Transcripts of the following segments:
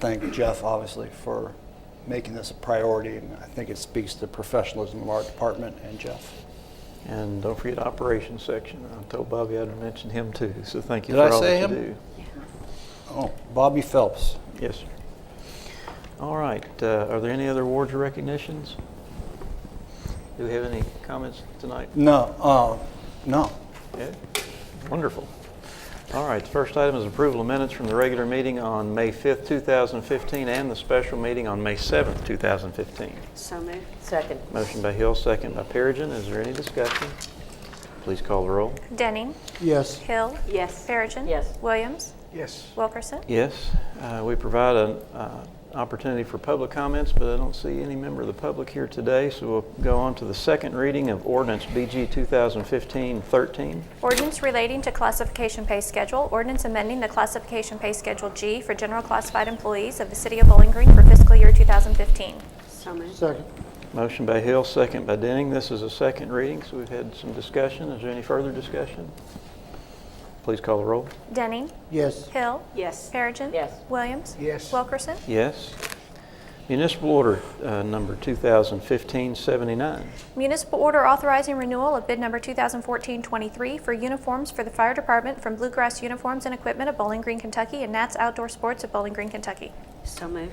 Thank Jeff, obviously, for making this a priority, and I think it speaks to the professionalism of our department and Jeff. And don't forget operations section. I told Bobby I'd mention him too, so thank you Did I for all say that you him? do. Oh, Bobby Phelps. Yes, sir. All right, uh, are there any other awards or recognitions? Do we have any comments tonight? No, uh, no. Yeah? Wonderful. All right, the first item is approval of minutes from the regular meeting on May 5th, 2015, and the special meeting on May 7th, 2015. So moved. Second. Motion by Hill, second by Perigin. Is there any discussion? Please call the roll. Denning. Yes. Hill. Yes. Perigin. Yes. Williams. Yes. Wilkerson. Yes, uh, we provide an uh, opportunity for public comments, but I don't see any member of the public here today, so we'll go on to the second reading of ordinance BG 2015-13. Ordinance relating to classification pay schedule. Ordinance amending the classification pay schedule G for general classified employees of the City of Bowling Green for fiscal year 2015. So moved. Second. Motion by Hill, second by Denning. This is a second reading, so we've had some discussion. Is there any further discussion? Please call the roll. Denning. Yes. Hill. Yes. Perigin. Yes. Williams. Yes. Wilkerson. Yes. Municipal Order uh, Number 2015-79. Municipal order authorizing renewal of bid number 2014-23 for uniforms for the fire department from Bluegrass Uniforms and Equipment of Bowling Green, Kentucky and Nats Outdoor Sports of Bowling Green, Kentucky. So moved.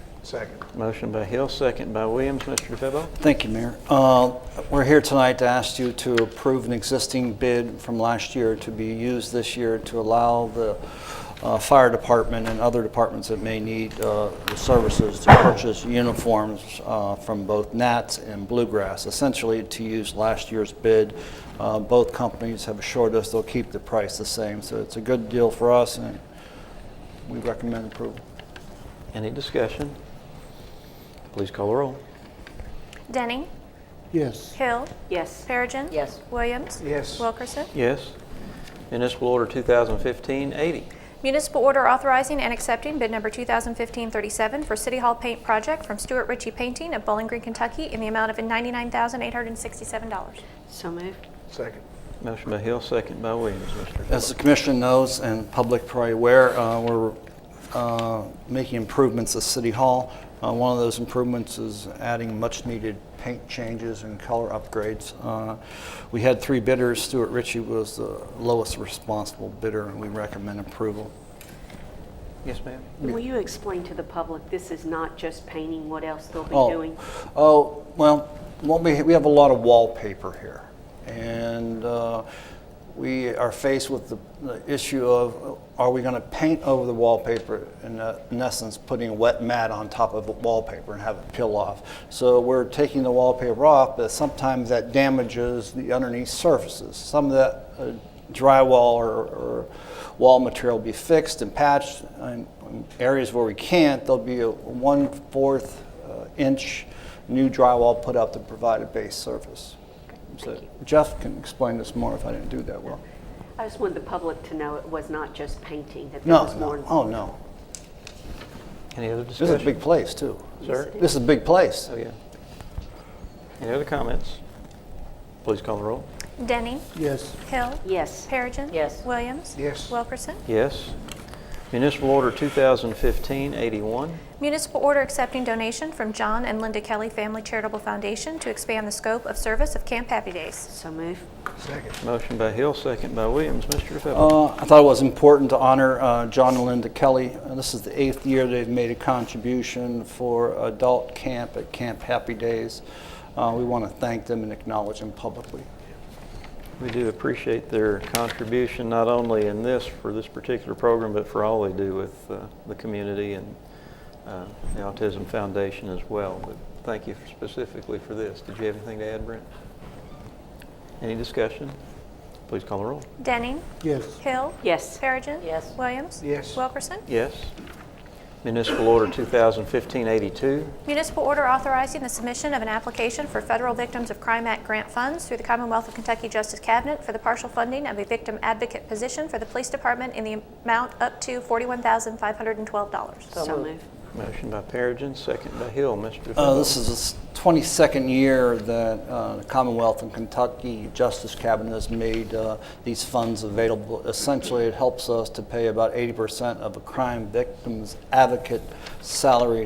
Motion by Hill, second by Williams. Mr. DeFebo? Thank you, Mayor. Uh, We're here tonight to ask you to approve an existing bid from last year to be used this year to allow the uh, fire department and other departments that may need uh, the services to purchase uniforms uh, from both Nats and Bluegrass, essentially to use last year's bid. Uh, Both companies have assured us they'll keep the price the same, so it's a good deal for us, and we recommend approval. Any discussion? Please call the roll. Denning. Yes. Hill. Yes. Perigin. Yes. Williams. Yes. Wilkerson. Yes. Municipal Order 2015-80. Municipal order authorizing and accepting bid number 2015-37 for City Hall paint project from Stuart Ritchie Painting of Bowling Green, Kentucky in the amount of $99,867. So moved. Second. Motion by Hill, second by Williams. Mr. As the commission knows, and public probably aware, uh, we're uh, making improvements at City Hall. Uh, One of those improvements is adding much-needed paint changes and color upgrades. Uh, We had three bidders. Stuart Ritchie was the lowest responsible bidder, and we recommend approval. Yes, ma'am. Will you explain to the public, this is not just painting, what else they'll be Oh. doing? Oh, well, what we, we have a lot of wallpaper here. And uh, we are faced with the, the issue of, uh, are we going to paint over the wallpaper, in, uh, in essence, putting a wet mat on top of the wallpaper and have it peel off? So we're taking the wallpaper off, but sometimes that damages the underneath surfaces. Some of that uh, drywall or, or wall material will be fixed and patched. And in areas where we can't, there'll be a one-fourth uh, inch new drywall put up to provide a base surface. So Jeff can explain this more if I didn't do that well. I just wanted the public to know it was not just painting, that there No, was more. no, oh, no. Any other This is a discussion? big place, too. Sir? This is a big place. Oh, yeah. Any other comments? Please call the roll. Denning. Yes. Hill. Yes. Perigin. Yes. Williams. Yes. Wilkerson. Yes. Municipal Order 2015-81. Municipal order accepting donation from John and Linda Kelly Family Charitable Foundation to expand the scope of service of Camp Happy Days. So moved. Motion by Hill, second by Williams. Mr. DeFebo? Uh, I thought it was important to honor uh, John and Linda Kelly. Uh, This is the eighth year they've made a contribution for adult camp at Camp Happy Days. Uh, We want to thank them and acknowledge them publicly. We do appreciate their contribution, not only in this, for this particular program, but for all they do with uh, the community and uh, the Autism Foundation as well. But thank you specifically for this. Did you have anything to add, Brent? Any discussion? Please call the roll. Denning. Yes. Hill. Yes. Perigin. Yes. Williams. Yes. Wilkerson. Yes. Municipal Order 2015-82. Municipal order authorizing the submission of an application for Federal Victims of Crime Act grant funds through the Commonwealth of Kentucky Justice Cabinet for the partial funding of a victim advocate position for the police department in the amount up to $41,512. So So moved. moved. Motion by Perigin, second by Hill. Uh, Mr. DeFebo. This is the s- 22nd year that uh, the Commonwealth and Kentucky Justice Cabinet has made uh, these funds available. Essentially, it helps us to pay about 80% of a crime victim's advocate salary